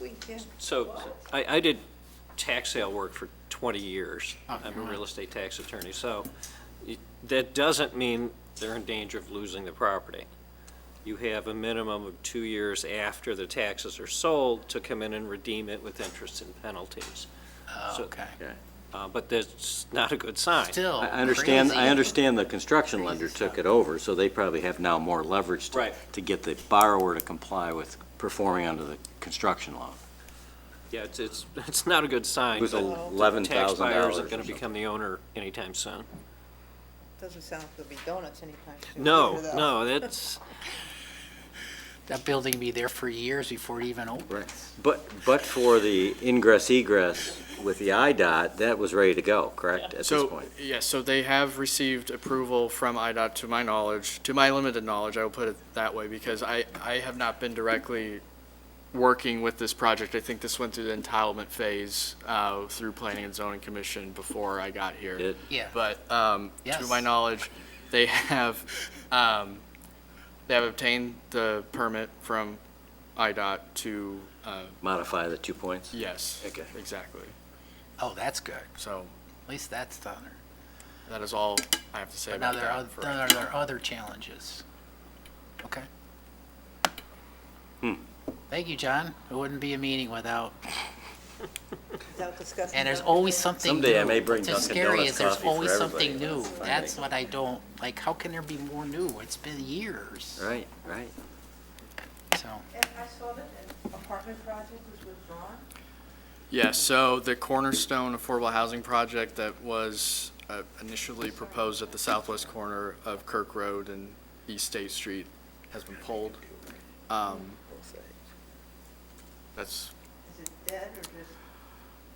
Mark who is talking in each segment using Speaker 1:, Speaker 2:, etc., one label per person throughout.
Speaker 1: We can.
Speaker 2: So I, I did tax sale work for 20 years.
Speaker 3: Oh,
Speaker 2: I'm a
Speaker 3: God.
Speaker 2: real estate tax attorney, so it- that doesn't mean they're in danger of losing the property. You have a minimum of two years after the taxes are sold to come in and redeem it with interest and penalties. So-
Speaker 3: Oh, Okay.
Speaker 4: Okay.
Speaker 2: Uh, But that's not a good sign.
Speaker 3: Still
Speaker 4: I understand, I
Speaker 3: Oh, crazy.
Speaker 4: understand the construction lender took it over, so they probably have now more leverage to,
Speaker 2: Right.
Speaker 4: to get the borrower to comply with performing under the construction law.
Speaker 2: Yeah, it's, it's, it's not a good sign.
Speaker 4: It was
Speaker 2: but
Speaker 4: eleven thousand
Speaker 2: Tax buyer
Speaker 4: dollars
Speaker 2: isn't going to become the owner anytime soon.
Speaker 1: Doesn't sound like there'll be donuts anytime soon.
Speaker 2: No, no, that's,
Speaker 3: That building be there for years before it even opens.
Speaker 4: Right, but, but for the ingress egress with the IDOT, that was ready to go, correct, at this
Speaker 5: So,
Speaker 4: point?
Speaker 5: yes, so they have received approval from IDOT, to my knowledge, to my limited knowledge, I will put it that way, because I, I have not been directly working with this project. I think this went through the entitlement phase, uh, through Planning and Zoning Commission before I got here.
Speaker 4: It-
Speaker 3: Yeah.
Speaker 5: But, um, to my
Speaker 3: Yes.
Speaker 5: knowledge, they have, um, they have obtained the permit from IDOT to, uh,
Speaker 4: Modify the two points?
Speaker 5: yes.
Speaker 4: Okay.
Speaker 5: Exactly.
Speaker 3: Oh, that's good. At
Speaker 5: So
Speaker 3: least that's done.
Speaker 5: that is all I have to say
Speaker 3: But now
Speaker 5: about
Speaker 3: there are,
Speaker 5: that. for
Speaker 3: there
Speaker 5: right
Speaker 3: are there are other challenges. Okay.
Speaker 4: Hmm.
Speaker 3: Thank you, John. It wouldn't be a meeting without,
Speaker 1: Without discussing.
Speaker 3: and there's
Speaker 1: donuts.
Speaker 3: always something new.
Speaker 4: Someday I may bring
Speaker 3: What's
Speaker 4: Dunkin'
Speaker 3: scary
Speaker 4: Donuts
Speaker 3: is there's
Speaker 4: coffee for
Speaker 3: always something
Speaker 4: everybody.
Speaker 3: new.
Speaker 4: That's fine.
Speaker 3: That's what I don't, like, how can there be more new? It's been years,
Speaker 4: Right, right.
Speaker 3: so.
Speaker 1: And I saw that an apartment project was withdrawn.
Speaker 5: Yeah, so the Cornerstone Affordable Housing Project that was uh, initially proposed at the southwest corner of Kirk Road and East State Street has been pulled. Um, That's,
Speaker 1: Is it dead or just?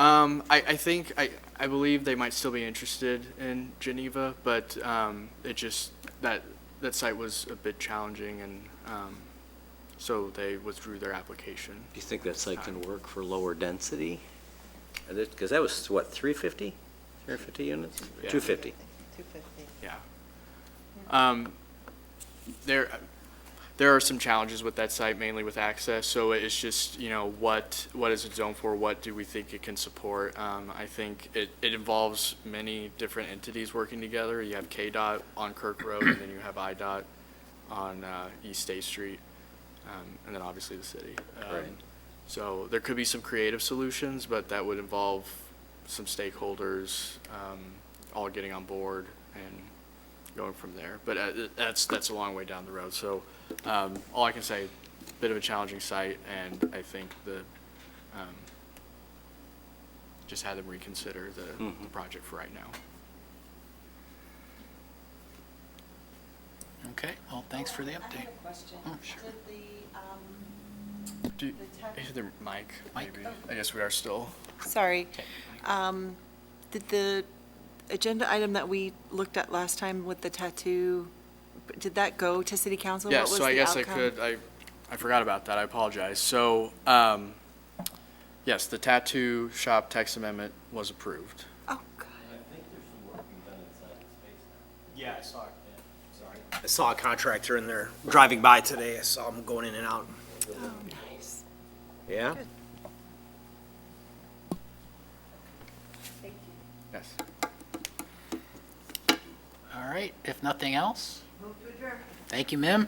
Speaker 5: um, I, I think, I, I believe they might still be interested in Geneva, but, um, it just, that, that site was a bit challenging and, um, so they withdrew their application.
Speaker 4: Do you think that site can work for lower density? Because that was, what, 350? 350 units?
Speaker 5: Yeah.
Speaker 4: 250.
Speaker 1: Two fifty.
Speaker 5: Yeah. Um, there, there are some challenges with that site, mainly with access, so it's just, you know, what, what is it zoned for? What do we think it can support? Um, I think it, it involves many different entities working together. You have KDOT on Kirk Road, and then you have IDOT on, uh, East State Street, um, and then obviously the city. Um,
Speaker 4: Right.
Speaker 5: So there could be some creative solutions, but that would involve some stakeholders, um, all getting on board and going from there. But uh, that's, that's a long way down the road. So um, all I can say, bit of a challenging site, and I think the, um, just had them reconsider the, the project for right now.
Speaker 3: Okay, well, thanks for the update.
Speaker 6: I have a question.
Speaker 3: Oh, sure.
Speaker 6: Did the, um,
Speaker 5: Do, you-
Speaker 6: The tech-
Speaker 5: is there mic,
Speaker 3: Mic.
Speaker 5: maybe? I guess we are still.
Speaker 6: sorry, um, did the agenda item that we looked at last time with the tattoo, did that go to city council? What
Speaker 5: Yeah,
Speaker 6: was
Speaker 5: so I
Speaker 6: the
Speaker 5: guess I
Speaker 6: outcome?
Speaker 5: could, I, I forgot about that, I apologize. So, um, yes, the tattoo shop tax amendment was approved.
Speaker 6: Oh, God.
Speaker 7: Yeah, I saw it. Sorry. I saw a contractor in there driving by today. I saw him going in and out.
Speaker 6: Oh, nice.
Speaker 4: Yeah?
Speaker 5: Yes.
Speaker 3: All right, if nothing else,
Speaker 1: Move to adjourn.
Speaker 3: thank you, Mim.